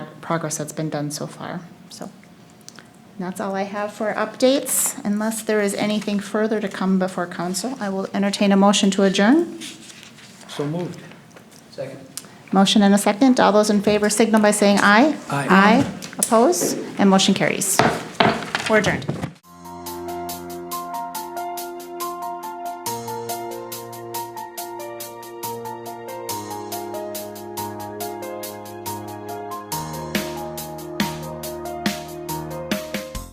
progress that's been done so far, so. And that's all I have for updates. Unless there is anything further to come before council, I will entertain a motion to adjourn. So moved. Second. Motion and a second. All those in favor signal by saying aye. Aye. Aye. Opposed? And motion carries. We're adjourned.